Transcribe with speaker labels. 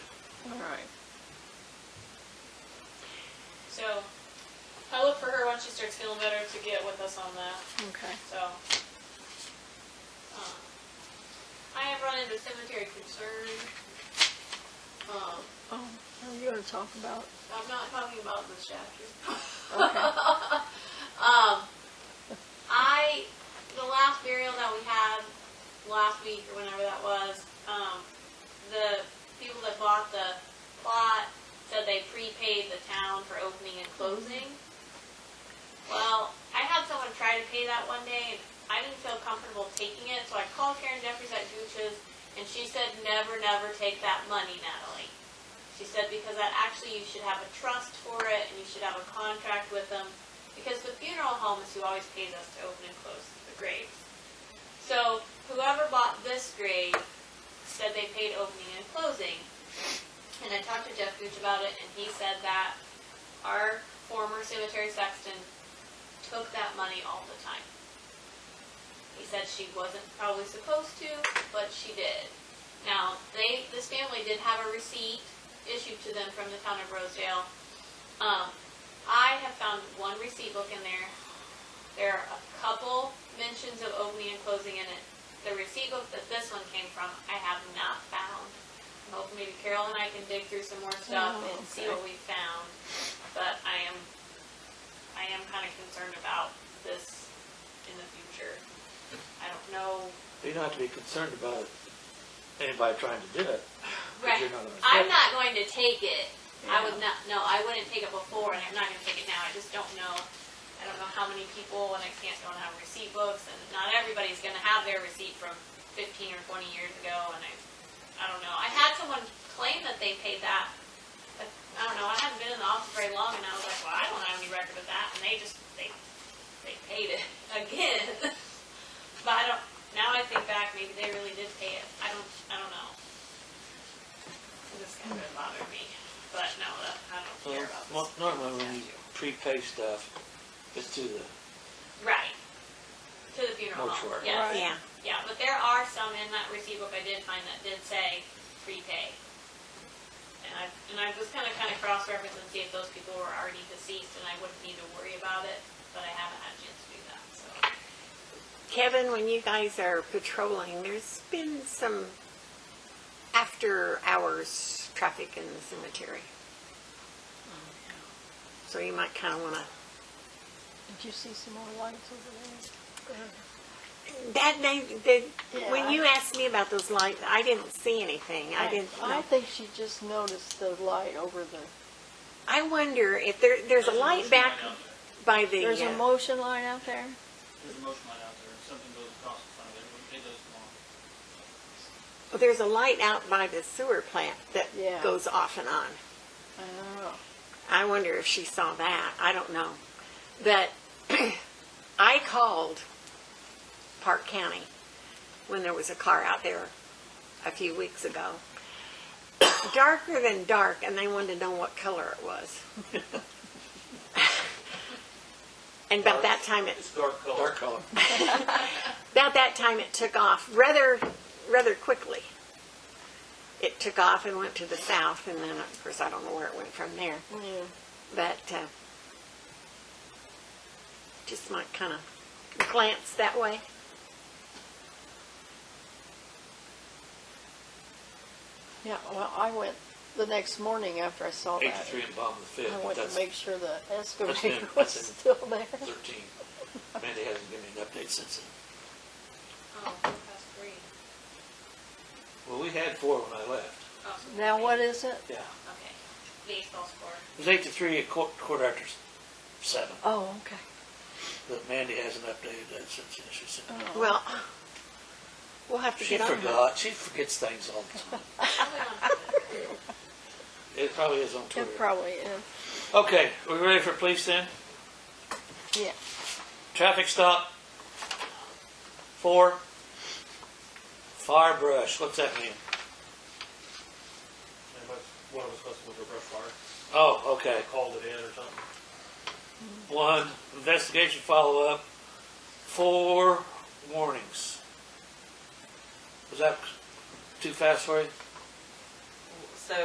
Speaker 1: All right.
Speaker 2: So I'll look for her once she starts feeling better to get with us on that,
Speaker 1: Okay.
Speaker 2: so. um, I have run into cemetery concern. Um,
Speaker 1: Oh, are you gonna talk about?
Speaker 2: I'm not talking about this chapter.
Speaker 1: Okay.
Speaker 2: Um, I, the last burial that we had last week or whenever that was, um, the people that bought the plot said they prepaid the town for opening and closing. Well, I had someone try to pay that one day and I didn't feel comfortable taking it, so I called Karen Jeffries at Gooch's and she said, never, never take that money, Natalie. She said, because that actually, you should have a trust for it, and you should have a contract with them, because the funeral home is who always pays us to open and close the graves. So whoever bought this grave said they paid opening and closing. And I talked to Jeff Gooch about it, and he said that our former cemetery sexton took that money all the time. He said she wasn't probably supposed to, but she did. Now, they, this family did have a receipt issued to them from the town of Rosedale. Um, I have found one receipt book in there. There are a couple mentions of opening and closing in it. The receipt book that this one came from, I have not found. I'm hoping maybe Carol and I can dig through some more stuff
Speaker 1: Oh,
Speaker 2: and see
Speaker 1: okay.
Speaker 2: what we found. But I am, I am kind of concerned about this in the future. I don't know.
Speaker 3: You don't have to be concerned about anybody trying to do it.
Speaker 2: Right.
Speaker 3: You're not gonna
Speaker 2: I'm
Speaker 3: take it.
Speaker 2: not going to take it. I would
Speaker 1: Yeah.
Speaker 2: not, no, I wouldn't take it before and I'm not gonna take it now. I just don't know. I don't know how many people and I can't, don't have receipt books and not everybody's gonna have their receipt from fifteen or twenty years ago and I, I don't know. I had someone claim that they paid that. but I don't know, I hadn't been in the office very long and I was like, well, I don't have any record of that and they just, they, they paid it again. But I don't, now I think back, maybe they really did pay it. I don't, I don't know. This kind of bothered me, but no, that- I don't care about this.
Speaker 3: Well, normally when you prepay stuff, it's to the,
Speaker 2: Right. To the funeral home,
Speaker 3: Mortuary.
Speaker 2: yes.
Speaker 1: Right.
Speaker 4: Yeah,
Speaker 2: Yeah, but there are some in that receipt book I did find that did say prepay. And I, and I was kinda, kinda cross-reference and see if those people were already deceased and I wouldn't need to worry about it, but I haven't had a chance to do that, so.
Speaker 4: Kevin, when you guys are patrolling, there's been some after-hours traffic in the cemetery. So you might kind of want to,
Speaker 1: Did you see some more lights over there?
Speaker 4: that night, the,
Speaker 1: Yeah.
Speaker 4: when you asked me about those lights, I didn't see anything. I didn't,
Speaker 1: I think she just noticed the light over the.
Speaker 4: I wonder if there, there's a light back by the,
Speaker 1: There's a
Speaker 4: uh,
Speaker 1: motion light out there.
Speaker 5: There's a motion light out there, if something goes across in front of it, it does come on.
Speaker 4: there's a light out by the sewer plant that
Speaker 1: Yeah.
Speaker 4: goes off and on.
Speaker 1: I don't know.
Speaker 4: I wonder if she saw that. I don't know. But I called Park County when there was a car out there a few weeks ago. Darker than dark, and they wanted to know what color it was. and about that time it
Speaker 5: It's dark color.
Speaker 3: dark color.
Speaker 4: about that time it took off rather rather quickly. It took off and went to the south, and then of course I don't know where it went from there.
Speaker 1: Yeah.
Speaker 4: But uh, just might kind of glance that way.
Speaker 1: Yeah, well, I went the next morning after I saw that.
Speaker 3: Eighty-three and bottom of the fifth,
Speaker 1: I
Speaker 3: but
Speaker 1: went to
Speaker 3: that's
Speaker 1: make sure the
Speaker 3: that's
Speaker 1: excavator
Speaker 3: in-
Speaker 1: was
Speaker 3: that's in-
Speaker 1: still there.
Speaker 3: thirteen. Mandy hasn't given me an update since then.
Speaker 2: Oh, that's great.
Speaker 3: Well, we had four when I left.
Speaker 2: Oh,
Speaker 1: Now what is it?
Speaker 3: Yeah.
Speaker 2: Okay, baseball score.
Speaker 3: It was eight to three, a quarter, quarter after s- seven,
Speaker 1: Oh, okay.
Speaker 3: but Mandy hasn't updated that since then, she said.
Speaker 1: Oh,
Speaker 4: Well, we'll have to
Speaker 3: She
Speaker 4: get on that.
Speaker 3: forgot, she forgets things all the time.
Speaker 2: Probably not.
Speaker 3: It probably is on
Speaker 1: It
Speaker 3: Twitter.
Speaker 1: probably is.
Speaker 3: Okay, we ready for police then?
Speaker 1: Yeah.
Speaker 3: Traffic stop. Four. Fire brush, what's that mean?
Speaker 5: And what, one was supposed to move a brush fire,
Speaker 3: Oh, okay.
Speaker 5: called it in or something.
Speaker 3: One, investigation follow-up. Four warnings. Was that too fast for you?